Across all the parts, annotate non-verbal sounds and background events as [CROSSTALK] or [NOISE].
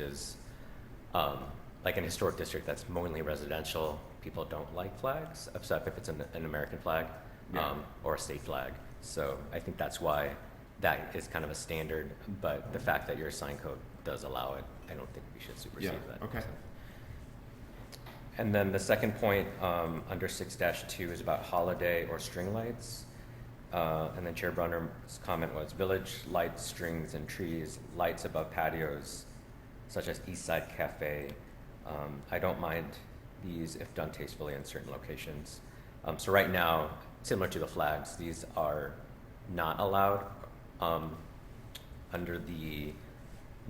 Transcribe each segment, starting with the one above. is um, like an historic district that's mainly residential. People don't like flags, except if it's an, an American flag Yeah. um, or a state flag. So I think that's why that is kind of a standard. But the fact that your sign code does allow it, I don't think we should supersede Yeah, that. okay. And then the second point, um, under six two is about holiday or string lights. Uh, and then Chair Brunner's comment was village lights, strings, and trees, lights above patios, such as East Side Cafe. Um, I don't mind these if done tastefully in certain locations. Um, so right now, similar to the flags, these are not allowed, um, under the,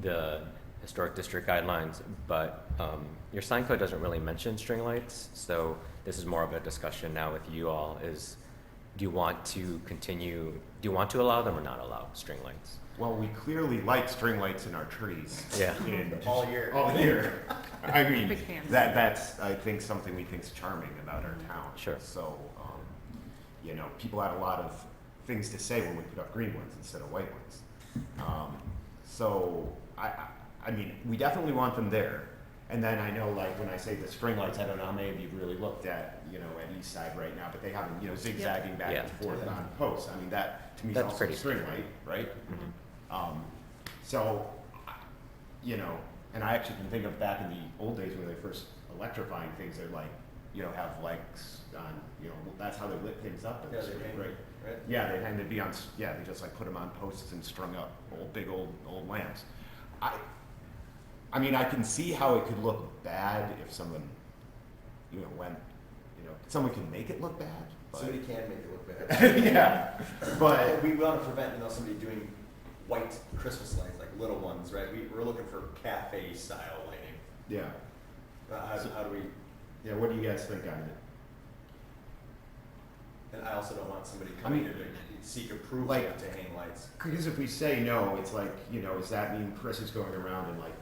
the historic district guidelines, but um, your sign code doesn't really mention string lights, so this is more of a discussion now with you all is, do you want to continue, do you want to allow them or not allow string lights? Well, we clearly like string lights in our trees. Yeah. And [LAUGHS] All year. All [LAUGHS] year. I mean, Big fan. that, that's, I think, something we think's charming about our town. Sure. So, um, you know, people had a lot of things to say when we put up green ones instead of white ones. Um, so, I, I, I mean, we definitely want them there. And then I know, like, when I say the string lights, I don't know how many of you really looked at, you know, at East Side right now, but they have them, you know, zigzagging back Yeah. and forth on posts. I mean, that, to me, is That's also a pretty. string light, right? Um, so, I- you know, and I actually can think of back in the old days when they first electrifying things, they're like, you know, have lights on, you know, that's how they lit things up in Yeah, the they street, hang, right? right? Yeah, they tend to be on, s- yeah, they just like put them on posts and strung up, old, big old, old lamps. I, I mean, I can see how it could look bad if someone, you know, went, you know, someone can make it look bad, Somebody but, can make it look [LAUGHS] bad. yeah, but, But we want to prevent, you know, somebody doing white Christmas lights, like little ones, right? We, we're looking for cafe style lighting. yeah. Uh, How, So- how do we, Yeah, what do you guys think on it? and I also don't want somebody I coming mean- here to seek approval Like- to hang lights. Because if we say no, it's like, you know, does that mean Chris is going around and like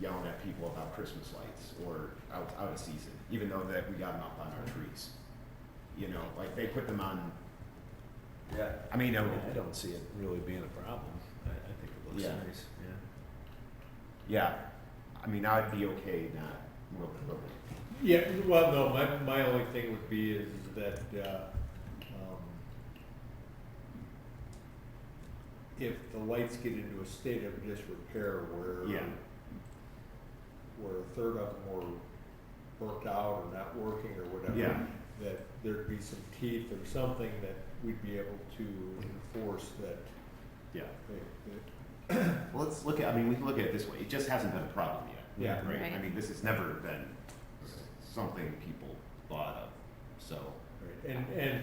yelling at people about Christmas lights or out, out of season, even though that we got them up on our trees? You know, like they put them on, Yeah. I mean, I um, mean, I don't see it really being a problem. I, I think it looks Yeah. nice, yeah. yeah, I mean, I'd be okay not, well, well, Yeah, well, no, my, my only thing would be is that, uh, um, if the lights get into a state of disrepair where Yeah. where a third of them were burnt out or not working or whatever, Yeah. that there'd be some teeth or something that we'd be able to enforce that, yeah. that- that Well, let's look at, I mean, we can look at it this way, it just hasn't been a problem yet. Yeah. Right, I Right. mean, this has never been something people thought of, so. Right, And, and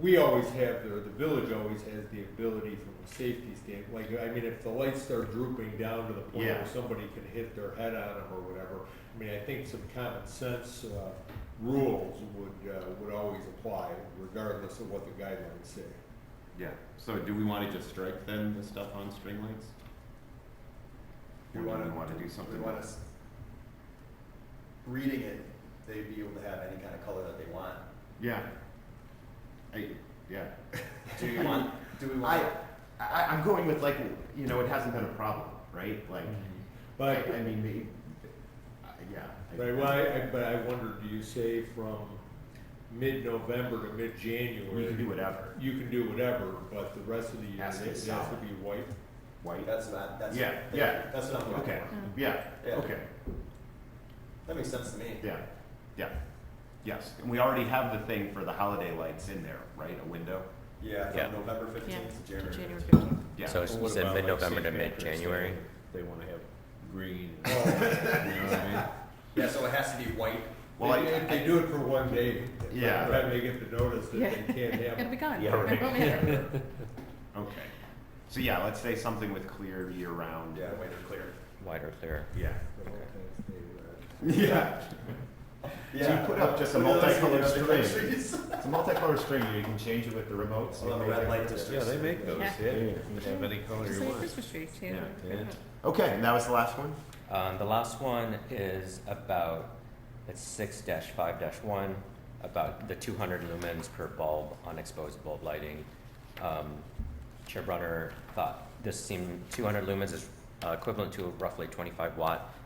we always have, or the village always has the ability from a safety standpoint, like, I mean, if the lights start drooping down to the point Yeah. where somebody can hit their head on them or whatever, I mean, I think some common sense, uh, rules would, uh, would always apply regardless of what the guidelines say. Yeah, so do we wanna just strike then the stuff on string lights? We Or do wanna- we wanna do something? We want us, reading it, they'd be able to have any kind of color that they want. Yeah. I, yeah. Do we want, do we I, want? I, I'm going with like, you know, it hasn't been a problem, right? Like, Mm-hmm. But I, I mean, maybe, I- yeah. I- But I, well, I- I- but I wonder, do you say from mid-November to We can do mid-January? whatever. You can do whatever, but the rest of the year, Has to it be has to solid. be white. White. That's not, that's. Yeah, that- yeah. That's not what I Okay, want. yeah, Yeah. okay, That makes sense to me. yeah, yeah, yes. And we already have the thing for the holiday lights in there, right? A window? Yeah, Yeah. from November Yeah, fifteenth to January. January 15th. fifteenth. Yeah. So it's- Well, you what said about, like, mid-November to St. Patrick's Day? mid-January? They wanna have [LAUGHS] green. Yeah, so it has to be white. Well, I- They- If they do it for one day, Yeah. yeah, then they get the notice that Yeah, they can't have. gotta be gone. Yeah, Gotta right. go in. [LAUGHS] Okay. So yeah, let's say something with clear year-round. Yeah, white or clear. White or clear? Yeah. The whole thing's stayed red. Yeah. So you put up just a multicolored string. [LAUGHS] Trees. It's a multicolored string. You can change it with the remotes. Well, the red light district. Yeah, they make those, Yeah. yeah. Yeah. You can have any color Just you like want. Christmas trees, yeah. Yeah. Okay, and that was the last one. Um, the last one is about, it's six five one, about the two hundred lumens per bulb on exposed bulb lighting. Um, Chair Brunner thought this seemed, two hundred lumens is uh, equivalent to roughly 25 watt